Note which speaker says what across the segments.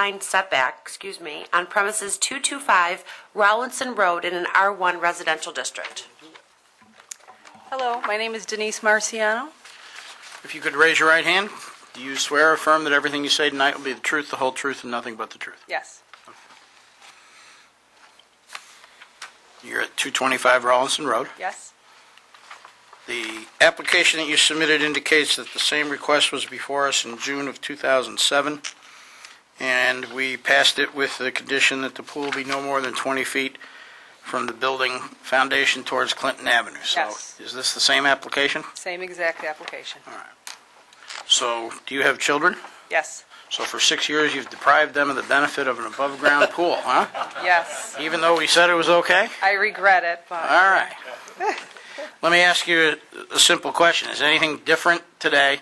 Speaker 1: line setback, excuse me, on premises 225 Rollinson Road in an R1 residential district.
Speaker 2: Hello, my name is Denise Marciano.
Speaker 3: If you could raise your right hand, do you swear or affirm that everything you say tonight will be the truth, the whole truth, and nothing but the truth?
Speaker 2: Yes.
Speaker 3: You're at 225 Rollinson Road.
Speaker 2: Yes.
Speaker 3: The application that you submitted indicates that the same request was before us in June of 2007, and we passed it with the condition that the pool be no more than 20 feet from the building foundation towards Clinton Avenue.
Speaker 2: Yes.
Speaker 3: So is this the same application?
Speaker 2: Same exact application.
Speaker 3: So do you have children?
Speaker 2: Yes.
Speaker 3: So for six years, you've deprived them of the benefit of an above-ground pool, huh?
Speaker 2: Yes.
Speaker 3: Even though we said it was okay?
Speaker 2: I regret it, but
Speaker 3: All right. Let me ask you a- a simple question. Is anything different today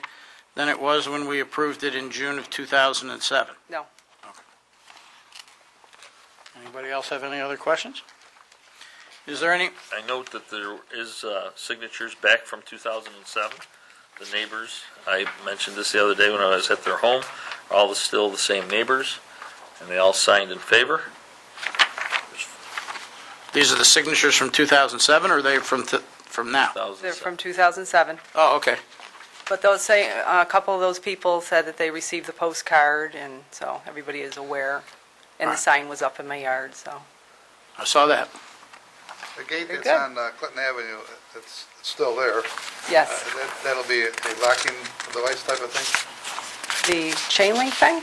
Speaker 3: than it was when we approved it in June of 2007?
Speaker 2: no.
Speaker 3: Anybody else have any other questions? Is there any,
Speaker 4: I note that there is uh, signatures back from 2007. The neighbors, I mentioned this the other day when I was at their home, are all the- still the same neighbors, and they all signed in favor.
Speaker 3: these are the signatures from 2007, or are they from, th- from now?
Speaker 2: They're from
Speaker 4: 2007.
Speaker 2: 2007.
Speaker 3: Oh, okay.
Speaker 2: But those same, a couple of those people said that they received the postcard, and so everybody is aware. And the
Speaker 3: Alright.
Speaker 2: sign was up in my yard, so.
Speaker 3: I saw that.
Speaker 5: The gate
Speaker 2: Very
Speaker 5: that's
Speaker 2: good.
Speaker 5: on uh, Clinton Avenue, it's it's still there. Uh,
Speaker 2: Yes.
Speaker 5: that- That'll be a a locking device type of thing.
Speaker 2: The chain link fence?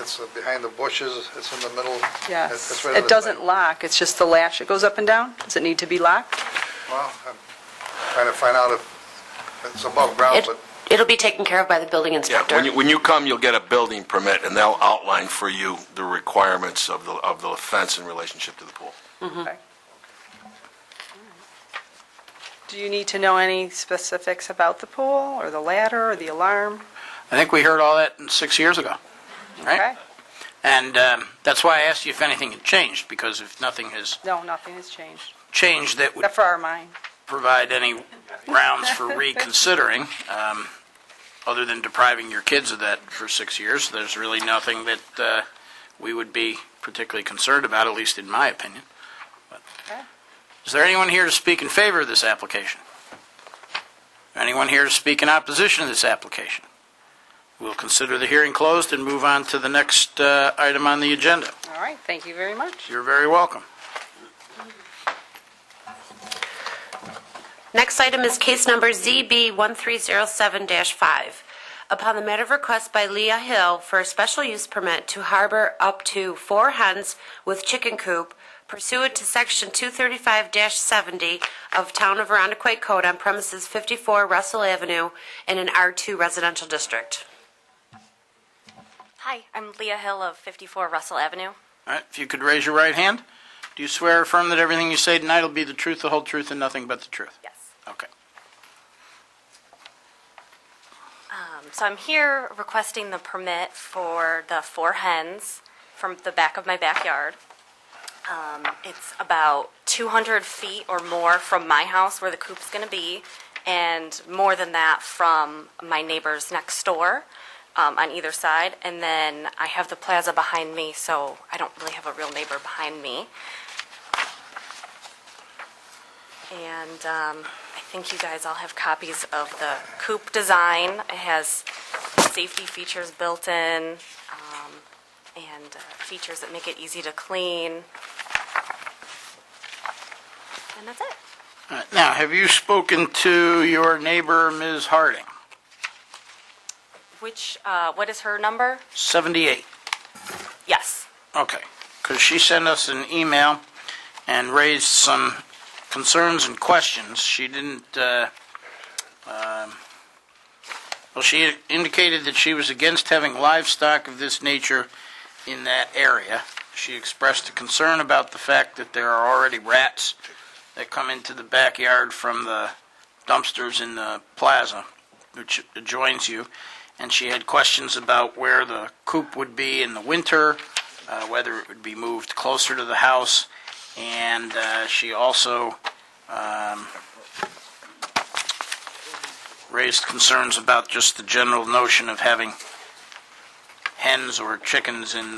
Speaker 5: It's uh, behind the bushes, it's in the middle. That's-
Speaker 2: Yes.
Speaker 5: that's right on
Speaker 2: It
Speaker 5: the
Speaker 2: doesn't
Speaker 5: side.
Speaker 2: lock, it's just the latch that goes up and down? Does it need to be locked?
Speaker 5: Well, I'm trying to find out if it's above ground,
Speaker 1: It-
Speaker 5: but
Speaker 1: It'll be taken care of by the building
Speaker 6: Oh, Yeah,
Speaker 1: inspector.
Speaker 6: when you, when you come, you'll get a building permit, and they'll outline for you the requirements of the, of the fence in relationship to the pool.
Speaker 2: Okay. Do you need to know any specifics about the pool, or the ladder, or the alarm?
Speaker 3: I think we heard all that six years ago,
Speaker 2: Okay.
Speaker 3: right? And um, that's why I asked you if anything had changed, because if nothing has
Speaker 2: No, nothing has changed,
Speaker 3: changed, that would
Speaker 2: except for our mine.
Speaker 3: provide any grounds for reconsidering, um, other than depriving your kids of that for six years. There's really nothing that uh, we would be particularly concerned about, at least in my opinion. But-
Speaker 2: Okay.
Speaker 3: Is there anyone here to speak in favor of this application? Anyone here to speak in opposition to this application? We'll consider the hearing closed and move on to the next uh, item on the agenda.
Speaker 2: All right, thank you very much.
Speaker 3: You're very welcome.
Speaker 1: Next item is case number ZB1307-5. Upon the matter of request by Leah Hill for a special use permit to harbor up to four hens with chicken coop pursuant to Section 235-70 of Town of Arundecoit Code on premises 54 Russell Avenue in an R2 residential district.
Speaker 7: Hi, I'm Leah Hill of 54 Russell Avenue.
Speaker 3: All right, if you could raise your right hand. Do you swear or affirm that everything you say tonight will be the truth, the whole truth, and nothing but the truth?
Speaker 7: Yes.
Speaker 3: Okay.
Speaker 7: Um, So I'm here requesting the permit for the four hens from the back of my backyard. Um, It's about 200 feet or more from my house where the coop's going to be, and more than that from my neighbors next door um, on either side. And then I have the plaza behind me, so I don't really have a real neighbor behind me. And um, I think you guys all have copies of the coupe design. It has safety features built in um, and uh, features that make it easy to clean. And that's it.
Speaker 3: All right, now, have you spoken to your neighbor, Ms. Harding?
Speaker 7: Which, uh, what is her number?
Speaker 3: 78.
Speaker 7: Yes.
Speaker 3: Okay. Because she sent us an email and raised some concerns and questions. She didn't, uh, um, well, she indicated that she was against having livestock of this nature in that area. She expressed a concern about the fact that there are already rats that come into the backyard from the dumpsters in the plaza, which adjoins you. And she had questions about where the coop would be in the winter, uh, whether it would be moved closer to the house. And uh, she also um, raised concerns about just the general notion of having hens or chickens in